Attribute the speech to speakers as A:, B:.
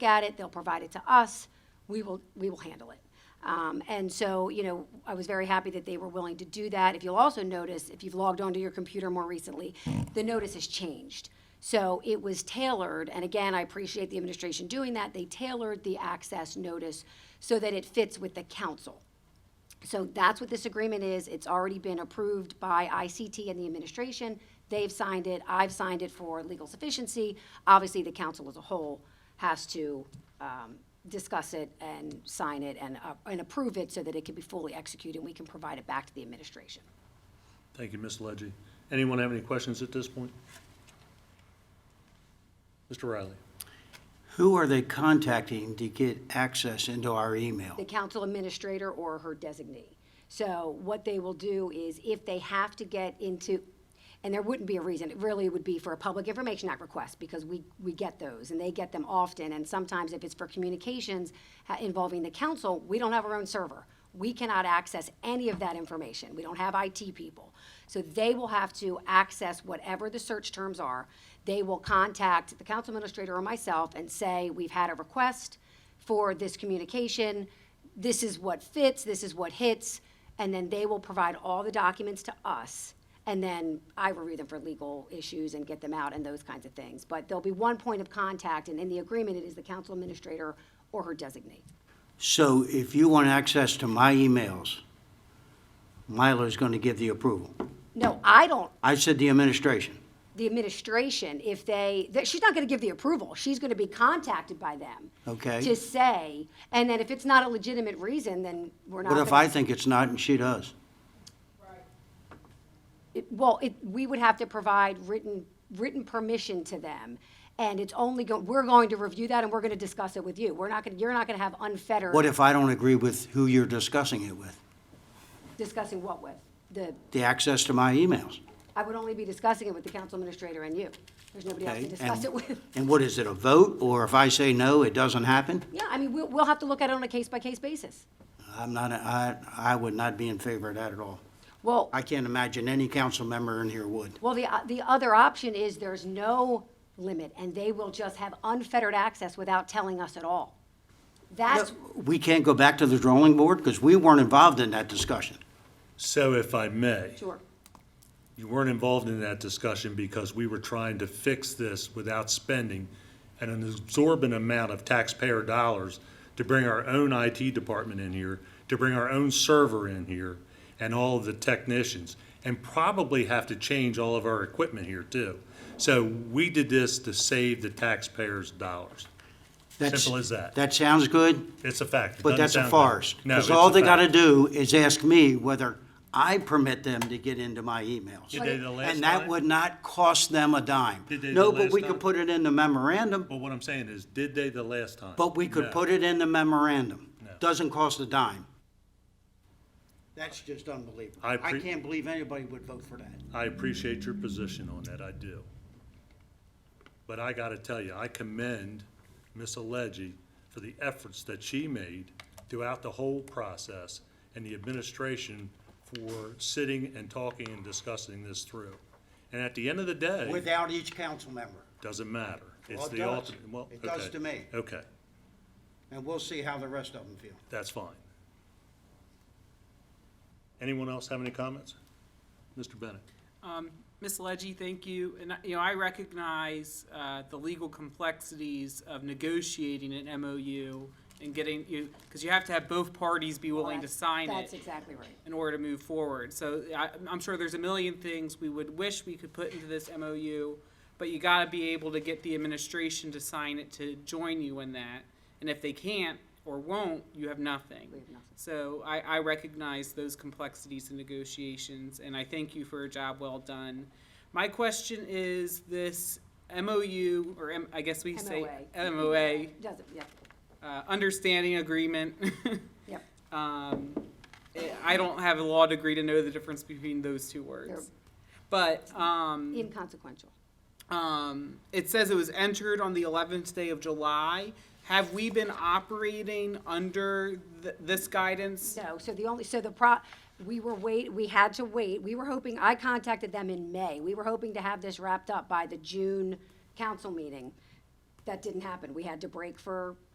A: at it, they'll provide it to us, we will, we will handle it. Um, and so, you know, I was very happy that they were willing to do that. If you'll also notice, if you've logged onto your computer more recently, the notice has changed. So it was tailored, and again, I appreciate the administration doing that. They tailored the access notice so that it fits with the council. So that's what this agreement is. It's already been approved by ICT and the administration. They've signed it. I've signed it for legal sufficiency. Obviously, the council as a whole has to um, discuss it and sign it and, uh, and approve it so that it can be fully executed and we can provide it back to the administration.
B: Thank you, Ms. Ledgy. Anyone have any questions at this point? Mr. Riley?
C: Who are they contacting to get access into our email?
A: the council administrator or her designee. So what they will do is if they have to get into, and there wouldn't be a reason, it really would be for a Public Information Act request because we, we get those and they get them often. And sometimes if it's for communications uh, involving the council, we don't have our own server. We cannot access any of that information. We don't have IT people. So they will have to access whatever the search terms are. They will contact the council administrator or myself and say, we've had a request for this communication. This is what fits, this is what hits, and then they will provide all the documents to us. And then I review them for legal issues and get them out and those kinds of things. But there'll be one point of contact, and in the agreement, it is the council administrator or her designee.
C: So if you want access to my emails, Myla's going to give the approval.
A: No, I don't,
C: I said the administration.
A: the administration, if they, that- she's not gonna give the approval, she's gonna be contacted by them.
C: Okay.
A: To say, and then if it's not a legitimate reason, then we're not.
C: What if
A: gonna-
C: I think it's not and she does?
A: It- Well, it, we would have to provide written, written permission to them, and it's only go, we're going to review that and we're gonna discuss it with you. We're not gonna, you're not gonna have unfettered.
C: What if I don't agree with who you're discussing it with?
A: Discussing what with? The,
C: The access to my emails?
A: I would only be discussing it with the council administrator and you. There's nobody else
C: okay?
A: to discuss
C: And-
A: it with.
C: And what is it, a vote? Or if I say no, it doesn't happen?
A: Yeah, I mean, we'll, we'll have to look at it on a case-by-case basis.
C: I'm not, I, I would not be in favor of that at all.
A: Well,
C: I can't imagine any council member in here would.
A: well, the, o- the other option is there's no limit, and they will just have unfettered access without telling us at all. That's,
C: We can't go back to the drawing board because we weren't involved in that discussion.
B: So if I may,
A: sure,
B: you weren't involved in that discussion because we were trying to fix this without spending an absorbent amount of taxpayer dollars to bring our own IT department in here, to bring our own server in here, and all of the technicians, and probably have to change all of our equipment here too. So we did this to save the taxpayers' dollars.
C: That's-
B: Simple as that.
C: That sounds good,
B: It's a fact. It
C: but
B: doesn't
C: that's a
B: sound good.
C: farce.
B: No,
C: Because
B: it's
C: all
B: a
C: they
B: fact.
C: gotta do is ask me whether I permit them to get into my emails.
B: Did they the last
C: And that
B: time?
C: would not cost them a dime.
B: Did they the
C: No, but
B: last
C: we could
B: time?
C: put it in the memorandum,
B: But what I'm saying is, did they the last time?
C: but we could
B: No.
C: put it in the memorandum.
B: No.
C: Doesn't cost a dime. That's just unbelievable.
B: I
C: I
B: pre-
C: can't believe anybody would vote for that.
B: I appreciate your position on that, I do. But I gotta tell you, I commend Ms. Allegi for the efforts that she made throughout the whole process and the administration for sitting and talking and discussing this through. And at the end of the day,
C: Without each council member,
B: doesn't matter. It's
C: Well, it
B: the
C: does.
B: ultimate- well,
C: It does
B: okay.
C: to me.
B: Okay,
C: and we'll see how the rest of them feel.
B: that's fine. Anyone else have any comments? Mr. Bennett?
D: Um, Ms. Leggy, thank you. And, you know, I recognize uh, the legal complexities of negotiating an MOU and getting you, because you have to have both parties be willing to
A: that's-
D: sign it
A: that's exactly right.
D: in order to move forward. So I, I'm sure there's a million things we would wish we could put into this MOU, but you gotta be able to get the administration to sign it to join you in that. And if they can't or won't, you have nothing. So I, I recognize those complexities in negotiations, and I thank you for a job well done. My question is this MOU, or M- I guess we say MOA,
A: Doesn't, yep,
D: uh, understanding agreement.
A: yep.
D: Um, eh, I don't have a law degree to know the difference between those two words. But, um,
A: Inconsequential.
D: um, it says it was entered on the eleventh day of July. Have we been operating under th- this guidance?
A: No, so the only, so the pro, we were wait, we had to wait, we were hoping, I contacted them in May. We were hoping to have this wrapped up by the June council meeting. that didn't happen. We had to break for